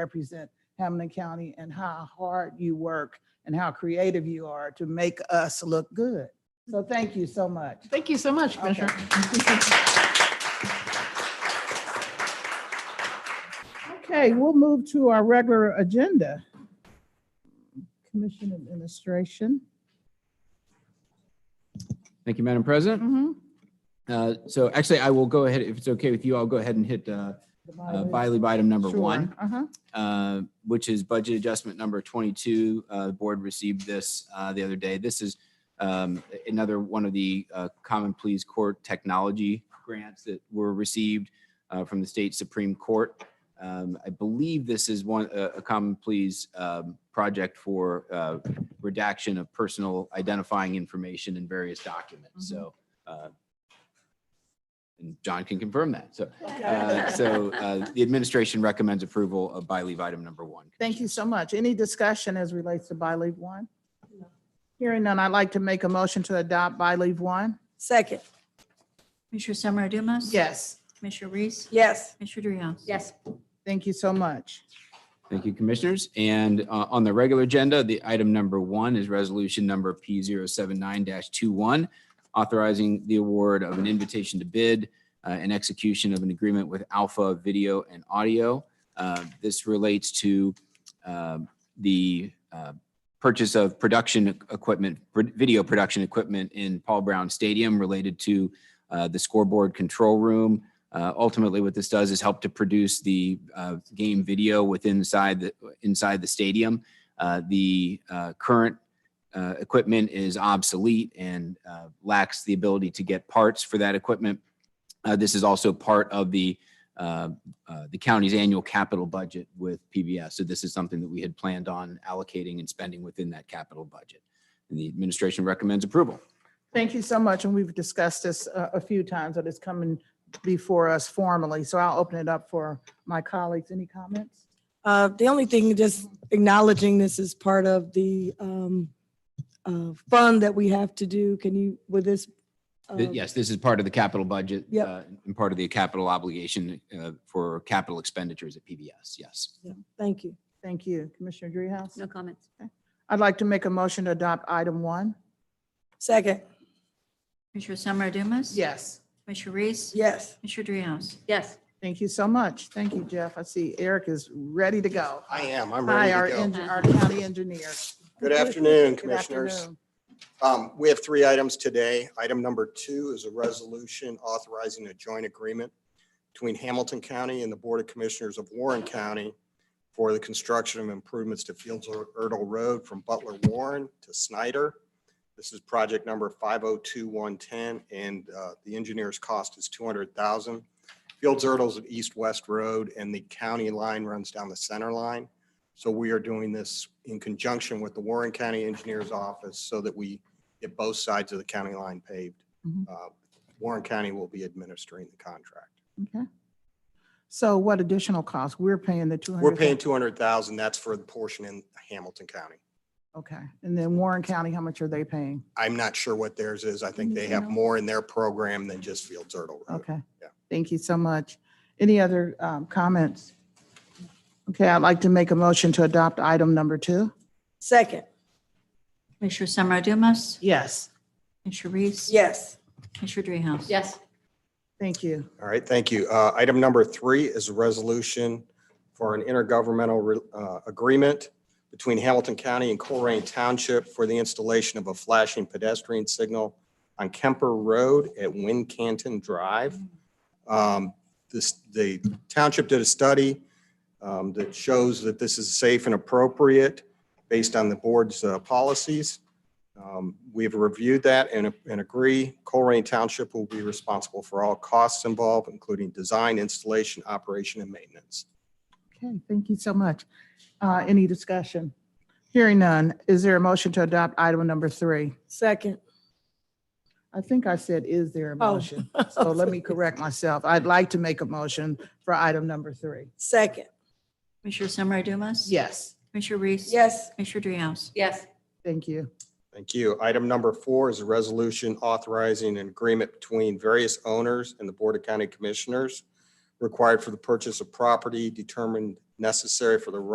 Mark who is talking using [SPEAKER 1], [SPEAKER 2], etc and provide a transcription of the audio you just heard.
[SPEAKER 1] represent Hamilton County and how hard you work and how creative you are to make us look good. So thank you so much.
[SPEAKER 2] Thank you so much, Commissioner.
[SPEAKER 1] Okay, we'll move to our regular agenda. Commission Administration.
[SPEAKER 3] Thank you, Madam President.
[SPEAKER 2] Mhm.
[SPEAKER 3] Uh, So actually, I will go ahead, if it's okay with you, I'll go ahead and hit uh, uh, by leave item number one,
[SPEAKER 1] Uh-huh.
[SPEAKER 3] uh, which is budget adjustment number 22. Uh, The board received this uh, the other day. This is um, another one of the uh, Common Pleas Court technology grants that were received uh, from the state Supreme Court. Um, I believe this is one, a a Common Pleas um, project for uh, redaction of personal identifying information in various documents. So uh, and John can confirm that. So uh, So uh, the administration recommends approval of by leave item number one.
[SPEAKER 1] Thank you so much. Any discussion as relates to by leave one? Hearing none, I'd like to make a motion to adopt by leave one.
[SPEAKER 4] Second,
[SPEAKER 5] Commissioner Summer Dumas?
[SPEAKER 1] Yes,
[SPEAKER 5] Commissioner Reese?
[SPEAKER 4] yes.
[SPEAKER 5] Commissioner Dreehouse?
[SPEAKER 4] Yes.
[SPEAKER 1] thank you so much.
[SPEAKER 3] Thank you, Commissioners. And uh, on the regular agenda, the item number one is resolution number P079-21, authorizing the award of an invitation to bid uh, and execution of an agreement with Alpha Video and Audio. Uh, This relates to um, the uh, purchase of production equipment, video production equipment in Paul Brown Stadium related to uh, the scoreboard control room, uh, ultimately, what this does is help to produce the uh, game video within inside the inside the stadium. Uh, the uh, current uh, equipment is obsolete and uh, lacks the ability to get parts for that equipment. Uh, this is also part of the uh, uh, the county's annual capital budget with PBS. So this is something that we had planned on allocating and spending within that capital budget. And the administration recommends approval.
[SPEAKER 1] Thank you so much, and we've discussed this uh, a few times, but it's coming before us formally, so I'll open it up for my colleagues. Any comments?
[SPEAKER 4] Uh, the only thing, just acknowledging this is part of the, um, uh, fund that we have to do. Can you, with this? uh,
[SPEAKER 3] Th- Yes, this is part of the capital budget.
[SPEAKER 4] Yep.
[SPEAKER 3] uh, And part of the capital obligation uh, for capital expenditures at PBS, yes.
[SPEAKER 4] Thank you.
[SPEAKER 1] Thank you. Commissioner Dreehouse?
[SPEAKER 5] No comments.
[SPEAKER 1] I'd like to make a motion to adopt item one.
[SPEAKER 4] Second,
[SPEAKER 5] Commissioner Summer Dumas?
[SPEAKER 1] Yes.
[SPEAKER 5] Commissioner Reese?
[SPEAKER 4] yes.
[SPEAKER 5] Commissioner Dreehouse?
[SPEAKER 6] Yes.
[SPEAKER 1] Thank you so much. Thank you, Jeff. I see Eric is ready to go.
[SPEAKER 7] I am. I'm
[SPEAKER 1] Hi,
[SPEAKER 7] ready
[SPEAKER 1] our,
[SPEAKER 7] to go.
[SPEAKER 1] en- our county engineer.
[SPEAKER 7] Good afternoon,
[SPEAKER 1] Good
[SPEAKER 7] Commissioners.
[SPEAKER 1] afternoon.
[SPEAKER 7] Um, We have three items today. Item number two is a resolution authorizing a joint agreement between Hamilton County and the Board of Commissioners of Warren County for the construction of improvements to Fields Erdel Road from Butler Warren to Snyder. This is project number 502110, and uh, the engineer's cost is 200000 Fields Erdel's an east-west road, and the county line runs down the center line. So we are doing this in conjunction with the Warren County Engineers Office so that we get both sides of the county line paved.
[SPEAKER 1] Mhm.
[SPEAKER 7] Uh, Warren County will be administering the contract.
[SPEAKER 1] Okay. So what additional costs? We're paying the two hundred.
[SPEAKER 7] We're paying 200,000, that's for the portion in Hamilton County.
[SPEAKER 1] Okay. And then Warren County, how much are they paying?
[SPEAKER 7] I'm not sure what theirs is. I think they have more in their program than just Fields Erdel Road.
[SPEAKER 1] Okay.
[SPEAKER 7] Yeah.
[SPEAKER 1] Thank you so much. Any other um, comments? Okay, I'd like to make a motion to adopt item number two.
[SPEAKER 4] Second,
[SPEAKER 5] Commissioner Summer Dumas?
[SPEAKER 1] Yes.
[SPEAKER 5] Commissioner Reese?
[SPEAKER 4] yes.
[SPEAKER 5] Commissioner Dreehouse?
[SPEAKER 6] Yes.
[SPEAKER 1] Thank you.
[SPEAKER 7] All right, thank you. Uh, Item number three is a resolution for an intergovernmental re- uh, agreement between Hamilton County and Colerain Township for the installation of a flashing pedestrian signal on Kemper Road at Wind Canton Drive. Um, This, the township did a study um, that shows that this is safe and appropriate based on the board's uh, policies. Um, We've reviewed that and, and agree Colerain Township will be responsible for all costs involved, including design, installation, operation, and maintenance.
[SPEAKER 1] Okay, thank you so much. Uh, Any discussion? Hearing none, is there a motion to adopt item number three?
[SPEAKER 4] Second,
[SPEAKER 1] I think I said, is there a
[SPEAKER 4] Oh.
[SPEAKER 1] motion? So let me correct myself. I'd like to make a motion for item number three.
[SPEAKER 4] second,
[SPEAKER 5] Commissioner Summer Dumas?
[SPEAKER 1] Yes,
[SPEAKER 5] Commissioner Reese?
[SPEAKER 4] yes.
[SPEAKER 5] Commissioner Dreehouse?
[SPEAKER 6] Yes.
[SPEAKER 1] thank you.
[SPEAKER 7] Thank you. Item number four is a resolution authorizing an agreement between various owners and the Board of County Commissioners required for the purchase of property determined necessary for the